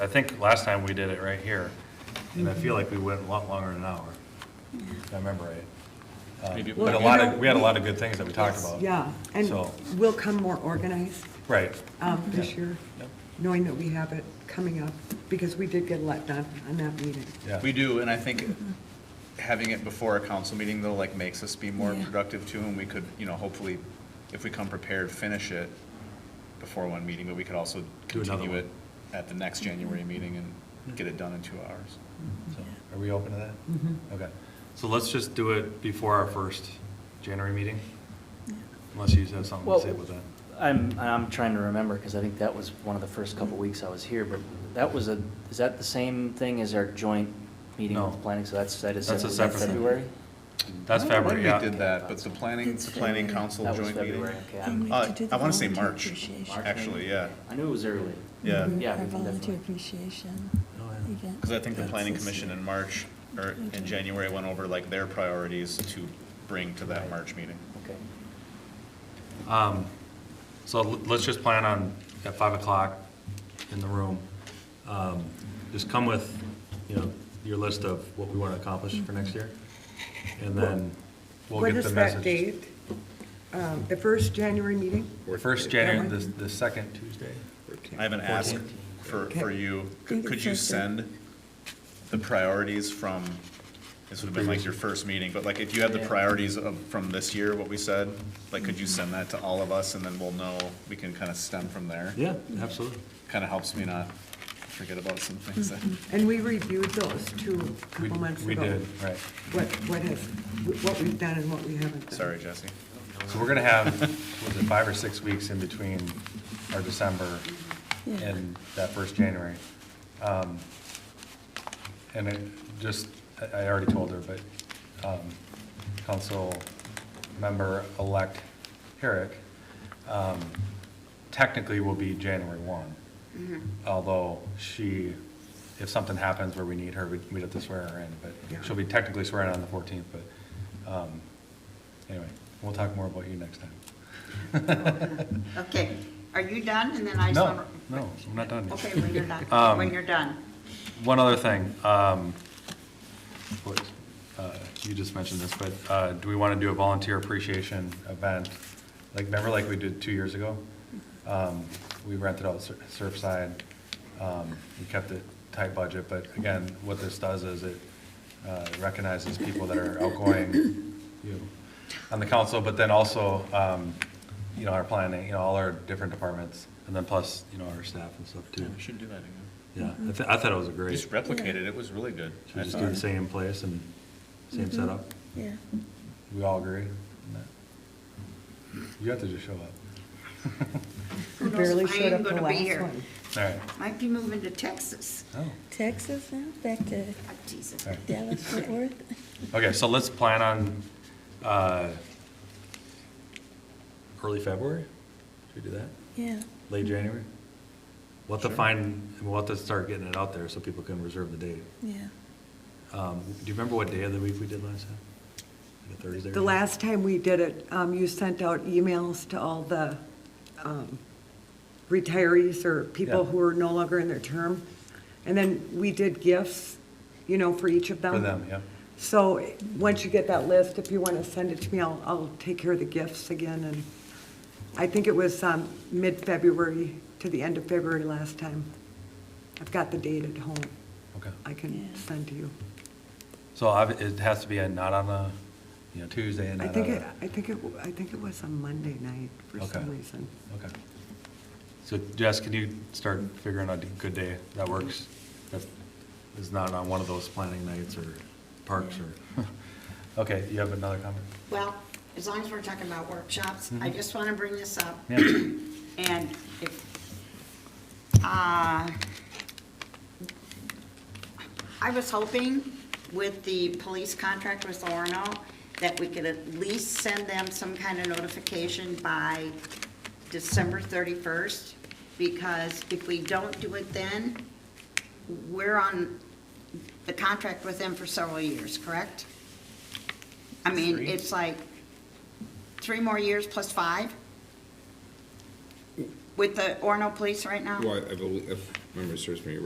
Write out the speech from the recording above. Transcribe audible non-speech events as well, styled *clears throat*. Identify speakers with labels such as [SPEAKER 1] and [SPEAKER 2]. [SPEAKER 1] I think last time we did it right here, and I feel like we went a lot longer than an hour, if I remember right. Um,
[SPEAKER 2] Maybe-
[SPEAKER 1] We had a
[SPEAKER 2] Well,
[SPEAKER 1] lot
[SPEAKER 3] you
[SPEAKER 1] of,
[SPEAKER 3] know,
[SPEAKER 1] we had a lot of good things that we talked
[SPEAKER 3] Yes,
[SPEAKER 1] about.
[SPEAKER 3] Yeah,
[SPEAKER 1] Uh, So-
[SPEAKER 3] and we'll come more organized
[SPEAKER 1] Right,
[SPEAKER 3] um, this
[SPEAKER 1] Yeah.
[SPEAKER 3] year,
[SPEAKER 1] Yep.
[SPEAKER 3] knowing that we have it coming up, because we did get a lot done on that meeting.
[SPEAKER 1] yeah.
[SPEAKER 2] We do, and I think having it before a council meeting though, like makes us be more
[SPEAKER 4] Yeah.
[SPEAKER 2] productive too, and we could, you know, hopefully, if we come prepared, finish it before one meeting, but we could also
[SPEAKER 1] Do another
[SPEAKER 2] continue
[SPEAKER 1] one.
[SPEAKER 2] it at the next January meeting and get it done in two hours.
[SPEAKER 1] So, Are we open to that?
[SPEAKER 3] Mm-hmm.
[SPEAKER 1] Okay, so let's just do it before our first January meeting, unless you have something to
[SPEAKER 5] Well-
[SPEAKER 1] say with that.
[SPEAKER 5] I'm, I'm trying to remember, because I think that was one of the first couple weeks I was here, but that was a, is that the same thing as our joint meeting with
[SPEAKER 1] No.
[SPEAKER 5] the planning, so that's, that is
[SPEAKER 1] That's a
[SPEAKER 5] was that
[SPEAKER 1] separate thing.
[SPEAKER 5] February?
[SPEAKER 1] That's
[SPEAKER 2] I don't know when
[SPEAKER 1] February, yeah.
[SPEAKER 2] We did that, but the planning, the planning council
[SPEAKER 5] That was
[SPEAKER 2] joint meeting.
[SPEAKER 5] February, okay.
[SPEAKER 4] And we
[SPEAKER 2] Uh,
[SPEAKER 4] have to do the
[SPEAKER 2] I wanna say
[SPEAKER 4] volunteer
[SPEAKER 2] March,
[SPEAKER 4] appreciation.
[SPEAKER 5] March,
[SPEAKER 2] Actually,
[SPEAKER 5] maybe?
[SPEAKER 2] yeah,
[SPEAKER 5] I knew it was early.
[SPEAKER 2] yeah.
[SPEAKER 5] Yeah,
[SPEAKER 4] Our
[SPEAKER 5] we can
[SPEAKER 4] volunteer
[SPEAKER 5] definitely-
[SPEAKER 4] appreciation
[SPEAKER 1] Oh, yeah.
[SPEAKER 4] event.
[SPEAKER 2] Because I think the
[SPEAKER 4] That's
[SPEAKER 2] planning
[SPEAKER 4] this
[SPEAKER 2] commission
[SPEAKER 4] year.
[SPEAKER 2] in March, or in January, went over like their priorities to bring to that March meeting.
[SPEAKER 5] Okay.
[SPEAKER 1] Um, So l- let's just plan on at 5 o'clock in the room. Um, Just come with, you know, your list of what we want to accomplish for next year. And then we'll
[SPEAKER 3] What
[SPEAKER 1] get the
[SPEAKER 3] is
[SPEAKER 1] message.
[SPEAKER 3] that date? Um, The first January meeting?
[SPEAKER 1] First January, the, the second Tuesday.
[SPEAKER 2] I haven't asked for, for you, could could you send the priorities from, this would have been like your first meeting, but like if you have the priorities of, from this year, what we said, like could you
[SPEAKER 1] Mm-hmm.
[SPEAKER 2] send that to all of us and then we'll know, we can kind of stem from there?
[SPEAKER 1] Yeah, absolutely.
[SPEAKER 2] Kind of helps me not forget about some things that,
[SPEAKER 3] And we reviewed those two a
[SPEAKER 1] We
[SPEAKER 3] couple months ago.
[SPEAKER 1] we did, right.
[SPEAKER 3] What, what has, what we've done and what we haven't done.
[SPEAKER 2] sorry, Jesse.
[SPEAKER 1] So we're going to have, was it five or six weeks in between our December
[SPEAKER 4] Yeah.
[SPEAKER 1] and that first January. Um, And it just, I- I already told her, but um, council member-elect Herrick um, technically will be January 1. Although she, if something happens where we need her, we'd we'd have to swear her in, but she'll be technically swearing on the 14th, but um, anyway, we'll talk more about you next time.
[SPEAKER 6] Okay, are you done? And then I.
[SPEAKER 1] No,
[SPEAKER 6] summer-
[SPEAKER 1] no, I'm not done. yet.
[SPEAKER 6] Okay, when you're done,
[SPEAKER 1] *laughs* Um,
[SPEAKER 6] when you're done.
[SPEAKER 1] One other thing, um, what, uh, you just mentioned this, but, uh, do we want to do a volunteer appreciation event? Like, remember like we did two years ago? Um, we rented out Sur- Surfside, um, we kept it tight budget, but again, what this does is it, uh, recognizes people that are outgoing, you know, on the council, but then also, um, you know, our planning, you know, all our different departments, and then plus, you know, our staff and stuff too.
[SPEAKER 2] should do that again.
[SPEAKER 1] Yeah, I, th- I thought it was a great.
[SPEAKER 2] Just replicate it, it was really good.
[SPEAKER 1] Should we
[SPEAKER 2] I
[SPEAKER 1] just do the
[SPEAKER 2] thought.
[SPEAKER 1] same place and
[SPEAKER 3] Mm-hmm.
[SPEAKER 1] same setup?
[SPEAKER 4] Yeah.
[SPEAKER 1] We all agree on that? You have to just show up.
[SPEAKER 6] Who knows
[SPEAKER 3] Barely
[SPEAKER 6] if I
[SPEAKER 3] showed
[SPEAKER 6] am
[SPEAKER 3] up the
[SPEAKER 6] gonna be
[SPEAKER 3] last
[SPEAKER 6] here.
[SPEAKER 3] one.
[SPEAKER 1] All right.
[SPEAKER 6] Might be moving to Texas.
[SPEAKER 1] Oh,
[SPEAKER 4] Texas now, back to
[SPEAKER 6] Ah, Jesus.
[SPEAKER 1] all right.
[SPEAKER 4] Dallas, Fort Worth. *laughs*
[SPEAKER 1] Okay, so let's plan on, uh, early February? Should we do that?
[SPEAKER 4] Yeah,
[SPEAKER 1] Late
[SPEAKER 3] Mm-hmm.
[SPEAKER 1] January? We'll have to
[SPEAKER 2] Sure.
[SPEAKER 1] find, we'll have to start getting it out there so people can reserve the date.
[SPEAKER 4] yeah.
[SPEAKER 1] Um, do you remember what day of the week we did last time? Like a Thursday? or
[SPEAKER 3] The
[SPEAKER 1] something?
[SPEAKER 3] last time we did it, um, you sent out emails to all the um, retirees or people
[SPEAKER 1] Yeah.
[SPEAKER 3] who are no longer in their term. And then we did gifts, you know, for each of them.
[SPEAKER 1] For them, yeah.
[SPEAKER 3] So, eh, once you get that list, if you want to send it to me, I'll, I'll take care of the gifts again. And I think it was um, mid-February to the end of February last time. I've got the date at home.
[SPEAKER 1] Okay.
[SPEAKER 3] I can
[SPEAKER 4] Yeah.
[SPEAKER 3] send to you.
[SPEAKER 1] So obvi- it has to be a not on a, you know, Tuesday and
[SPEAKER 3] I
[SPEAKER 1] not on
[SPEAKER 3] think,
[SPEAKER 1] a-
[SPEAKER 3] it. I think it, w- I think it was on Monday night for
[SPEAKER 1] Okay.
[SPEAKER 3] some reason.
[SPEAKER 1] Okay. So Jess, can you start figuring out a good day that works? That is not on one of those planning nights or parks or, okay, you have another comment?
[SPEAKER 6] Well, as long as we're talking about workshops, I just want to bring this up.
[SPEAKER 1] Yeah.
[SPEAKER 6] *clears throat* And if, uh, I was hoping with the police contract with Orno that we could at least send them some kind of notification by December 31st, because if we don't do it then, we're on the contract with them for several years, correct? I mean, it's like three more years plus five with the Orno police right now?
[SPEAKER 7] Well, I I believe, if memory serves me